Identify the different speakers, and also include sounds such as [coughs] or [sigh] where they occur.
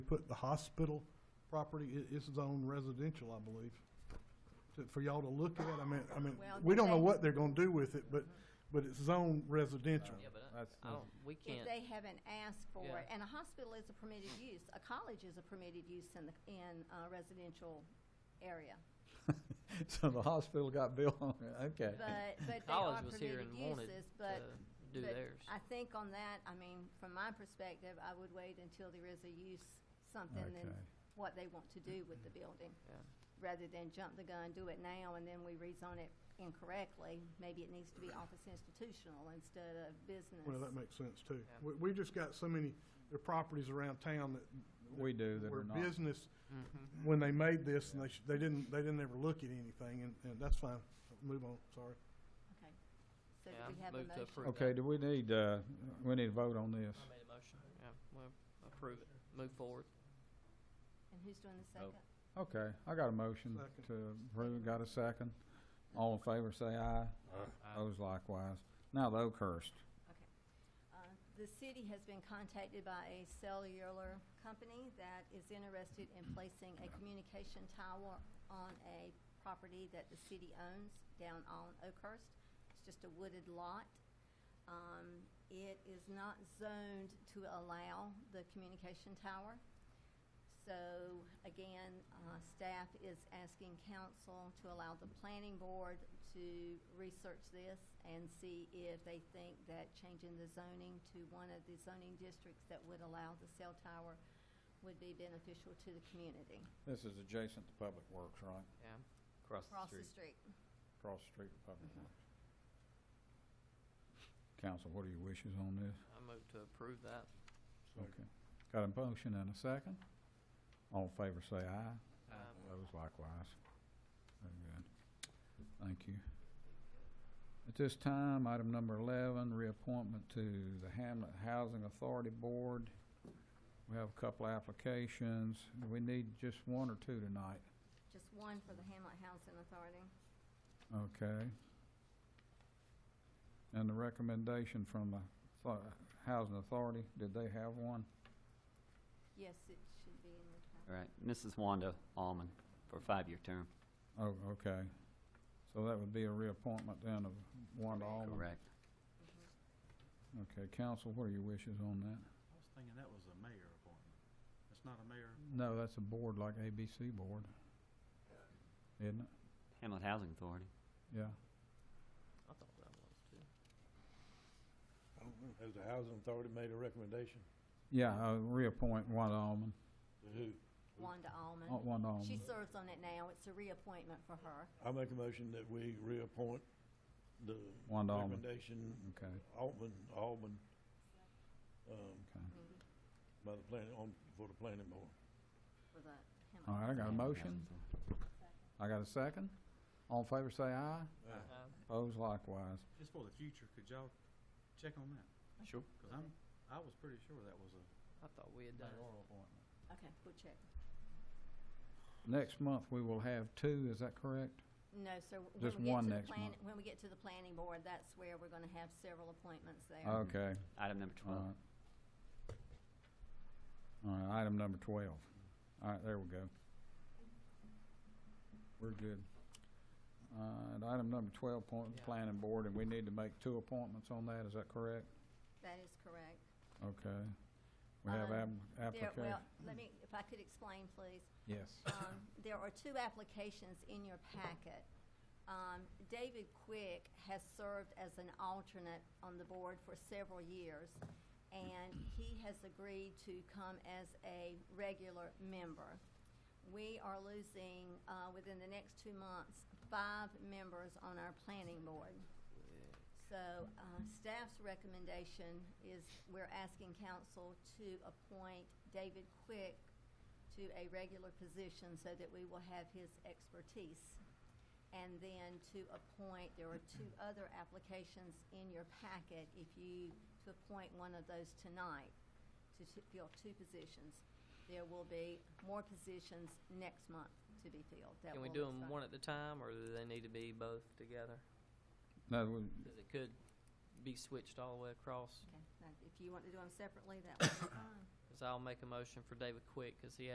Speaker 1: put the hospital property, it, it's zone residential, I believe, to, for y'all to look at. I mean, I mean,
Speaker 2: Well,
Speaker 1: we don't know
Speaker 2: they-
Speaker 1: what they're gonna do with it, but, but it's zone residential.
Speaker 3: Yeah, but
Speaker 4: Um, That's-
Speaker 3: I, I don't, we
Speaker 2: if
Speaker 3: can't,
Speaker 2: they haven't asked for
Speaker 3: Yeah.
Speaker 2: it. And a hospital is a permitted use, a college is a permitted use in the, in a residential area.
Speaker 4: [laughs] So the hospital got built on it, okay.
Speaker 2: But, but they are
Speaker 3: college was here
Speaker 2: permitted
Speaker 3: and wanted
Speaker 2: uses,
Speaker 3: to
Speaker 2: but
Speaker 3: do
Speaker 2: but
Speaker 3: theirs.
Speaker 2: I think on that, I mean, from my perspective, I would wait until there is a use, something than
Speaker 4: Okay.
Speaker 2: what they want to do with the building.
Speaker 3: Yeah.
Speaker 2: Rather than jump the gun, do it now, and then we rezone it incorrectly, maybe it needs to be office institutional instead of business.
Speaker 1: Well, that makes sense too.
Speaker 3: Yeah.
Speaker 1: We, we just got so many, there are properties around town that.
Speaker 4: We do that
Speaker 1: were
Speaker 4: are not.
Speaker 1: business,
Speaker 3: Mhm.
Speaker 1: when they made this, and they, sh- they didn't, they didn't ever look at anything, and, and that's fine. Move on, sorry.
Speaker 2: Okay. So
Speaker 3: Yeah,
Speaker 2: do we have a
Speaker 3: move to
Speaker 2: motion?
Speaker 3: approve.
Speaker 4: Okay, do we need, uh, we need to vote on this?
Speaker 3: I made a motion, yeah, we'll approve it, move forward.
Speaker 2: And who's doing the second?
Speaker 4: Okay, I got a motion
Speaker 1: Second.
Speaker 4: to approve, got a second. All in favor, say aye. Those likewise. Now the Oakhurst.
Speaker 2: Uh, The city has been contacted by a cellular company that is interested in placing a communication tower on a property that the city owns down on Oakhurst. It's just a wooded lot. Um, It is not zoned to allow the communication tower. So again, uh, staff is asking council to allow the planning board to research this and see if they think that changing the zoning to one of the zoning districts that would allow the cell tower would be beneficial to the community.
Speaker 4: This is adjacent to Public Works, right?
Speaker 3: Yeah,
Speaker 5: Across the
Speaker 2: Across the
Speaker 5: street.
Speaker 2: street.
Speaker 4: Across the street from Public Works. Council, what are your wishes on this?
Speaker 3: I move to approve that.
Speaker 4: Okay. Got a motion and a second? All in favor, say aye.
Speaker 3: Um,
Speaker 4: Those likewise. Very good. Thank you. At this time, item number eleven, reappointment to the Hamlet Housing Authority Board. We have a couple of applications. We need just one or two tonight,
Speaker 2: Just one for the Hamlet Housing Authority.
Speaker 4: okay? And the recommendation from the Thou- Housing Authority, did they have one?
Speaker 2: Yes, it should be in the
Speaker 5: All
Speaker 2: town.
Speaker 5: right, Mrs. Wanda Alman for a five-year term.
Speaker 4: Oh, okay. So that would be a reappointment then of Wanda Allen.
Speaker 5: Correct.
Speaker 2: Mm-hmm.
Speaker 4: Okay, council, what are your wishes on that?
Speaker 6: I was thinking that was a mayor appointment. It's not a mayor.
Speaker 4: No, that's a board like ABC board, isn't it?
Speaker 5: Hamlet Housing Authority.
Speaker 4: Yeah.
Speaker 3: I thought that was too.
Speaker 6: I don't know. Has the housing authority made a recommendation?
Speaker 4: Yeah, uh, reappoint Wanda Alman,
Speaker 6: To who?
Speaker 2: Wanda Alman.
Speaker 4: uh, Wanda
Speaker 2: She
Speaker 4: Alman.
Speaker 2: serves on it now. It's a reappointment for her.
Speaker 6: I make a motion that we reappoint the
Speaker 4: Wanda Allman.
Speaker 6: recommendation
Speaker 4: Okay,
Speaker 6: Altman, Altman, um,
Speaker 4: okay.
Speaker 2: Mm-hmm.
Speaker 6: by the planning, on, for the planning board.
Speaker 2: For the Hamlet.
Speaker 4: All right, I got a
Speaker 5: Hamlet
Speaker 4: motion.
Speaker 5: Housing Authority.
Speaker 4: I got a second. All in favor, say aye.
Speaker 6: Ah.
Speaker 1: Uh.
Speaker 3: Um,
Speaker 4: Opposed likewise.
Speaker 6: Just for the future, could y'all check on that?
Speaker 5: Sure.
Speaker 6: Cause I'm, I was pretty sure that was a
Speaker 3: I thought we had done, it.
Speaker 6: mayoral appointment.
Speaker 2: Okay, we'll check.
Speaker 4: Next month, we will have two, is that correct?
Speaker 2: No, sir. w- when
Speaker 4: Just
Speaker 2: we get
Speaker 4: one
Speaker 2: to the
Speaker 4: next
Speaker 2: plan-
Speaker 4: month.
Speaker 2: When we get to the planning board, that's where we're gonna have several appointments there.
Speaker 4: Okay,
Speaker 5: Item number
Speaker 4: all
Speaker 5: twelve.
Speaker 4: right. All right, item number twelve. All right, there we go. We're good. Uh, and item number twelve, point,
Speaker 3: Yeah.
Speaker 4: planning board, and we need to make two appointments on that, is that correct?
Speaker 2: That is correct.
Speaker 4: Okay. We have
Speaker 2: Um, There-
Speaker 4: application,
Speaker 2: Well, let me, if I could explain, please.
Speaker 4: yes.
Speaker 2: Um, There are two applications in your packet. Um, David Quick has served as an alternate on the board for several years, and he has agreed to come as a regular member. We are losing, uh, within the next two months, five members on our planning board. So, uh, staff's recommendation is we're asking council to appoint David Quick to a regular position so that we will have his expertise. And then to appoint, there are two other applications in your packet if you, to appoint one of those tonight, to t- fill two positions. There will be more positions next month to be filled. that
Speaker 3: can we
Speaker 2: will
Speaker 3: do them
Speaker 2: expire.
Speaker 3: one at a time, or do they need to be both together?
Speaker 4: That would,
Speaker 3: Because it could be switched all the way across. [coughs]
Speaker 2: Okay, now, if you want to do them separately, that would be fine.
Speaker 3: Cause I'll make a motion for David Quick, cause he